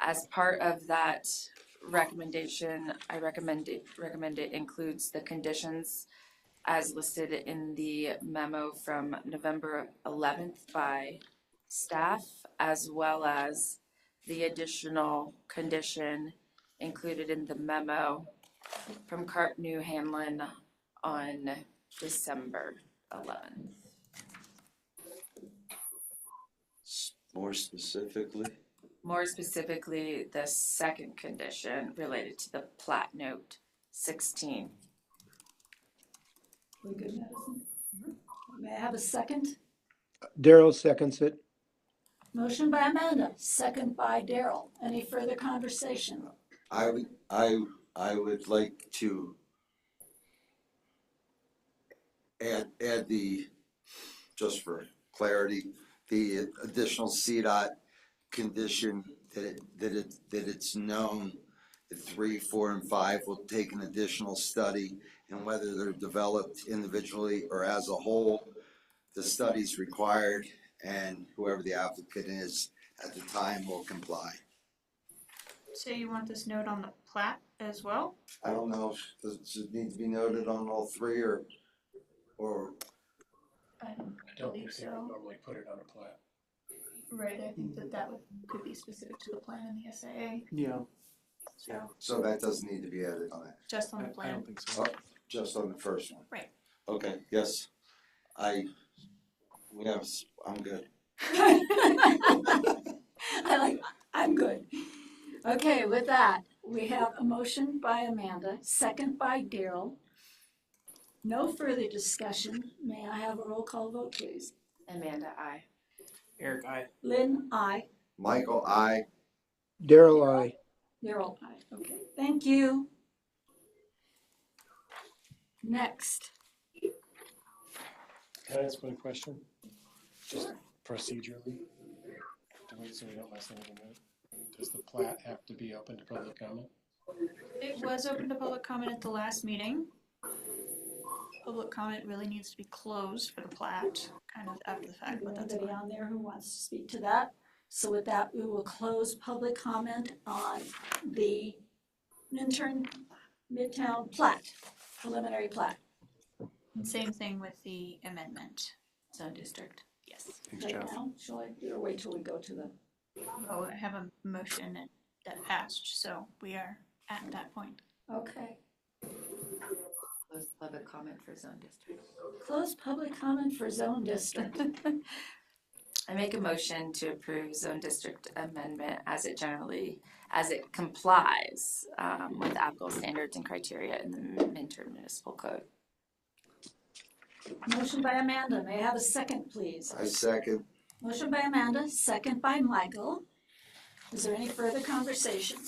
as part of that recommendation, I recommend it, recommend it includes the conditions as listed in the memo from November eleventh by staff, as well as the additional condition included in the memo from Cart New Hanlon on December eleventh. S- More specifically, More specifically, the second condition related to the plat note sixteen. We good, Madison? May I have a second? Daryl seconds it. Motion by Amanda, second by Daryl. Any further conversation? I, w- I, I would like to add, add the, just for clarity, the additional CDOT condition that it, that it, that it's known that three, four, and five will take an additional study and whether they're developed individually or as a whole, the study's required and whoever the applicant is at the time will comply. So you want this note on the plat as well? I don't know, if- does it need to be noted on all three or, or, I don't- I don't think Believe they would so. normally put it on a plat. Right, I think that that would, could be specific to the plan and the SAA, Yeah, so so that doesn't need to be added on it, just on I the I plan. don't think so. just on the first one? Right. Okay, yes, I, we have, s- I'm good. I like, I'm good. Okay, with that, we have a motion by Amanda, second by Daryl. No further discussion. May I have a roll call vote, please? Amanda, I. Eric, I. Lynn, aye. Michael, I, Daryl, I. Daryl, aye. Okay, thank you. Next, Can I ask one question? Just procedurally? To wait so we don't mess anything up. Does the plat have to be open to public comment? It was open to public comment at the last meeting. Public comment really needs to be closed for the plat, kind of after the fact, but that's anybody on there who wants to speak to that? So with that, we will close public comment on the Minturn Midtown plat, preliminary plat. Same thing with the amendment. Zone district. Yes. Thanks, Right now, shall I, or wait till we go to the, Oh, I have a motion that- that passed, so we are at that point. okay. Close public comment for zone district. Close public comment for zone district. I make a motion to approve zone district amendment as it generally, as it complies um, with applicable standards and criteria in the Minter Municipal Code. Motion by Amanda, may I have a second, please? I second, Motion by Amanda, second by Michael. Is there any further conversation?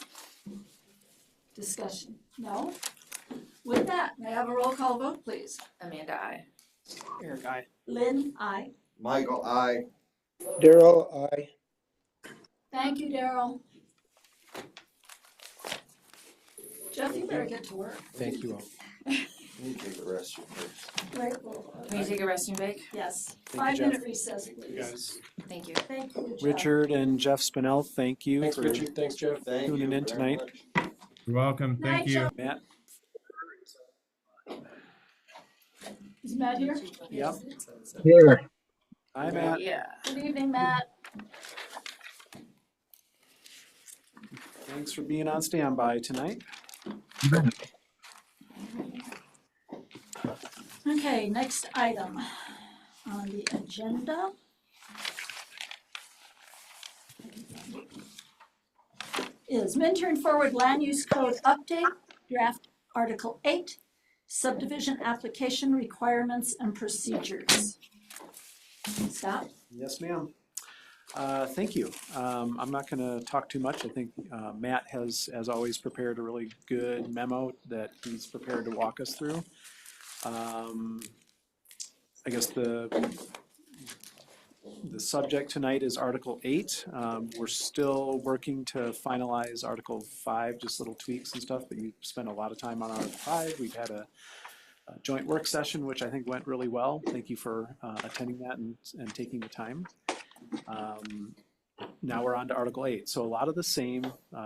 Discussion? No? With that, may I have a roll call vote, please? Amanda, I. Eric, I. Lynn, aye. Michael, I, Daryl, I. Thank you, Daryl. Jeff, you better get to work. Thank you all. let me take the restroom first. Right, well, Can you take a restroom break? Yes, you, five minute Jeff. recess, You please. guys, Thank you. Thank you, Jeff. Richard and Jeff Spinell, thank you thanks for Richard, thanks Jeff. Thank you Tuning very in tonight. much. You're welcome. Night, Thank you. Jeff. Matt. Is Matt here? Yep. Here. Hi, Matt. Yeah. Good evening, Matt. Thanks for being on standby tonight. Okay, next item on the agenda. Is Minturn Forward Land Use Code Update, Draft Article Eight, Subdivision Application Requirements and Procedures. Scott? Yes, ma'am. Uh, Thank you. Um, I'm not going to talk too much. I think uh, Matt has, as always, prepared a really good memo that he's prepared to walk us through. Um, I guess the, the subject tonight is Article 8. Um, We're still working to finalize Article 5, just little tweaks and stuff, but you spent a lot of time on Article 5. We've had a uh, joint work session, which I think went really well. Thank you for uh, attending that and, and taking the time. Um, now we're on to Article eight. So a lot of the same, uh,